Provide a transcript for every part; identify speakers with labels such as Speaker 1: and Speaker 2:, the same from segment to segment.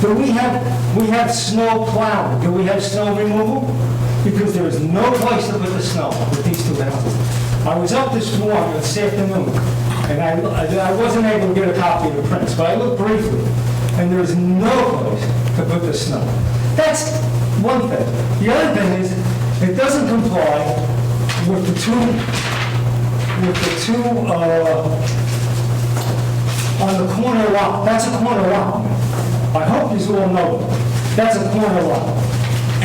Speaker 1: Do we have, we have snow plowing, do we have snow removal? Because there is no place to put the snow with these two houses. I was up this morning, this afternoon, and I, I wasn't able to get a copy of the prints, but I looked briefly, and there is no place to put the snow. That's one thing. The other thing is, it doesn't comply with the two, with the two, uh, on the corner lot, that's a corner lot. I hope you all know, it. that's a corner lot.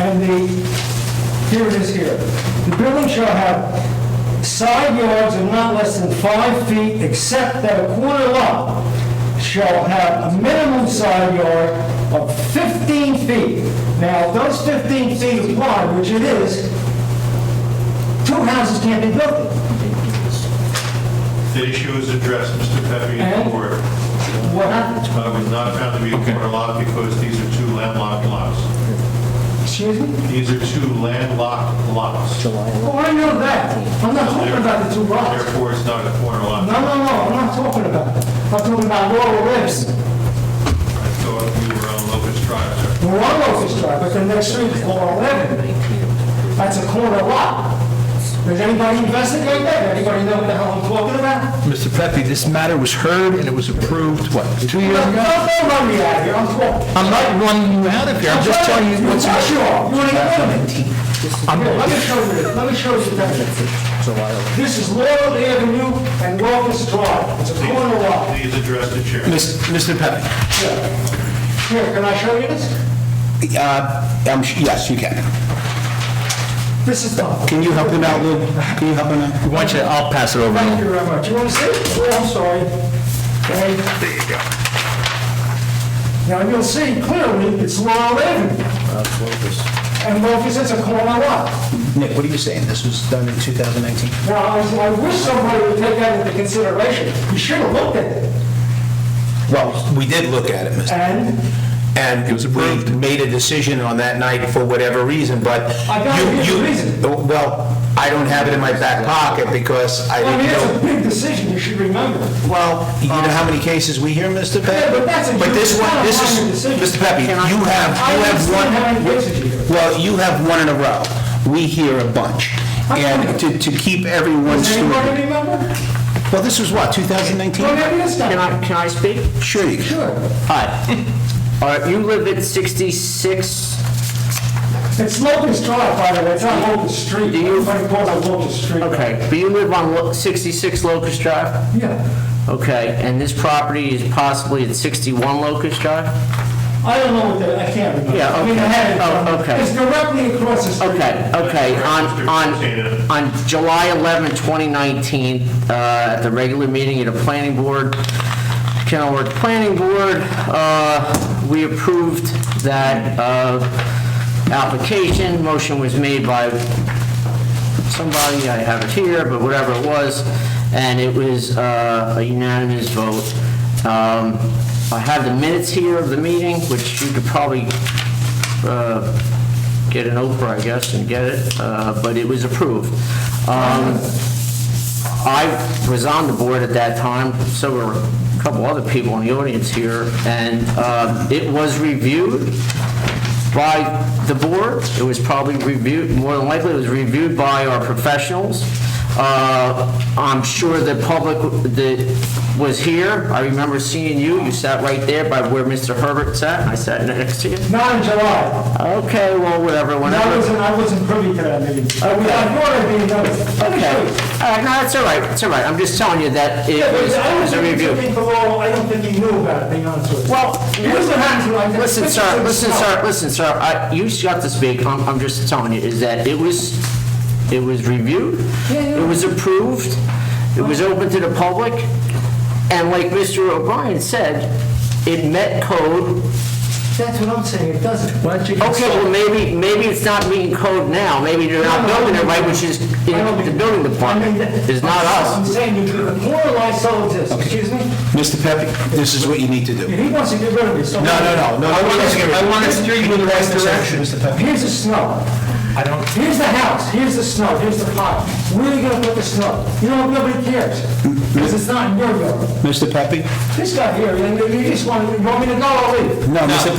Speaker 1: And the, here it is here. The building shall have side yards of not less than five feet, except that a corner lot shall have a minimum side yard of 15 feet. Now, if those 15 feet apply, which it is, two houses can't be built there.
Speaker 2: The issue is addressed, Mr. Pepe, in
Speaker 1: And-
Speaker 2: court.
Speaker 1: What happened?
Speaker 2: I was not found to be a corner lot because these are two landlocked lots.
Speaker 1: Excuse me?
Speaker 2: These are two landlocked lots.
Speaker 1: Oh, I know that. I'm not talking about the two lots.
Speaker 2: Therefore, it's not a corner lot.
Speaker 1: No, no, no, I'm not talking about that. I'm talking about Laurel Lives.
Speaker 2: I thought we were on Locust Drive, sir.
Speaker 1: We're on Locust Drive, but the next street is Laurel Avenue. That's a corner lot. Does anybody investigate that? Anybody know what the hell I'm talking about?
Speaker 3: Mr. Pepe, this matter was heard and it was approved, what, two years
Speaker 1: Don't
Speaker 3: ago?
Speaker 1: don't run me out of here, I'm talking.
Speaker 3: I'm not running you out of here, I'm just telling you what's...
Speaker 1: Yes, you are. You wanna get rid of it?
Speaker 3: I'm-
Speaker 1: Here, let me show you, this. let me show you that. This is Laurel Avenue and Locust Drive. It's a corner lot.
Speaker 2: Please address the chair.
Speaker 3: Mis- Mr. Pepe,
Speaker 1: Here, can I show you this?
Speaker 4: Uh, I'm sh- Yes, you can.
Speaker 1: This is the...
Speaker 4: Can you help him out, Lou? Can you help him out?
Speaker 3: we want you, I'll pass it over.
Speaker 1: Thank you very much. You want to see? it? Oh, I'm sorry. Okay. There you go. Now, you'll see clearly, it's Laurel Avenue. And Locust, it's a corner lot.
Speaker 4: Nick, what are you saying? This was done in 2019?
Speaker 1: Now, I I wish somebody would take that into consideration. You should have looked at it.
Speaker 4: Well, we did look at it, Mr.
Speaker 1: And
Speaker 4: And we made a decision on that night for whatever reason, but...
Speaker 1: I gotta
Speaker 4: you-
Speaker 1: give the
Speaker 4: you-
Speaker 1: reason.
Speaker 4: Well, I don't have it in my back pocket because I
Speaker 1: I mean,
Speaker 4: didn't
Speaker 1: it's a
Speaker 4: know...
Speaker 1: big decision, you should remember.
Speaker 4: Well, you know how many cases we hear, Mr. Pepe?
Speaker 1: Yeah, but that's a huge-
Speaker 4: this
Speaker 1: it's not
Speaker 4: one,
Speaker 1: a
Speaker 4: this
Speaker 1: minor
Speaker 4: is,
Speaker 1: decision.
Speaker 4: Mr. Pepe, you have, you
Speaker 1: I
Speaker 4: have one...
Speaker 1: understand how many cases you hear.
Speaker 4: Well, you have one in a row. We hear a bunch. And to to keep everyone...
Speaker 1: Does
Speaker 4: steward-
Speaker 1: anybody remember?
Speaker 4: Well, this was what, 2019?
Speaker 1: Well, maybe this
Speaker 5: Can
Speaker 1: time.
Speaker 5: I, can I speak?
Speaker 4: Sure you can.
Speaker 1: Sure.
Speaker 5: Hi. All right, you live at 66,
Speaker 1: It's Locust Drive, by the way, it's not Locust Street.
Speaker 5: Do you-
Speaker 1: Everybody calls it Locust Street.
Speaker 5: okay, but you live on Lo- 66 Locust Drive?
Speaker 1: Yeah.
Speaker 5: Okay, and this property is possibly at 61 Locust Drive?
Speaker 1: I don't know what that, I can't remember.
Speaker 5: Yeah,
Speaker 1: I mean, I
Speaker 5: okay.
Speaker 1: had it.
Speaker 5: Oh, okay.
Speaker 1: It's directly across the street.
Speaker 5: Okay, okay, on, on, on July 11, 2019, uh, at the regular meeting of the planning board, Kenilworth Planning Board, uh, we approved that uh, application, motion was made by somebody, I have it here, but whatever it was, and it was uh, a unanimous vote. Um, I have the minutes here of the meeting, which you could probably uh, get an Oprah, I guess, and get it, uh, but it was approved. Um, I was on the board at that time, so were a couple other people in the audience here, and uh, it was reviewed by the board. It was probably reviewed, more than likely, it was reviewed by our professionals. Uh, I'm sure the public that was here, I remember seeing you, you sat right there by where Mr. Herbert sat, and I sat next to you.
Speaker 1: Not in July.
Speaker 5: Okay, well, whatever,
Speaker 1: And I
Speaker 5: whenever.
Speaker 1: wasn't, I wasn't privy to that meeting. I mean, I thought I'd be in those. Let me
Speaker 5: Okay,
Speaker 1: show
Speaker 5: all
Speaker 1: you.
Speaker 5: right, no, it's all right, it's all right, I'm just telling you that it
Speaker 1: Yeah, but
Speaker 5: was
Speaker 1: I
Speaker 5: it
Speaker 1: don't
Speaker 5: was a
Speaker 1: think he took
Speaker 5: review.
Speaker 1: me for long. I don't think he knew about it, being honest with you.
Speaker 5: Well,
Speaker 1: It was what happened to my-
Speaker 5: listen, sir, listen, sir, listen, sir, I, you just got to speak, I'm, I'm just telling you, is that it was, it was reviewed,
Speaker 1: Yeah, yeah.
Speaker 5: it was approved, it was open to the public, and like Mr. O'Brien said, it met code.
Speaker 1: That's what I'm saying, it doesn't. Why don't you?
Speaker 5: Okay, well, maybe, maybe it's not meeting code now, maybe they're not building it right, which is in the building department, it's not
Speaker 1: I'm
Speaker 5: us.
Speaker 1: saying, you could immortalize someone this, excuse me?
Speaker 4: Mr. Pepe, this is what you need to do.
Speaker 1: If he wants to get rid of me, so.
Speaker 4: No, no, no, no.
Speaker 3: I want us- I want us to steer you in the right direction,
Speaker 4: Mr. Pepe.
Speaker 1: Here's the snow.
Speaker 3: I don't...
Speaker 1: Here's the house, here's the snow, here's the pile. Where are you gonna put the snow? You know, nobody cares, because it's not in your yard.
Speaker 4: Mr. Pepe?
Speaker 1: This guy here, and you just want, you want me to go, I'll leave.
Speaker 4: No, Mr.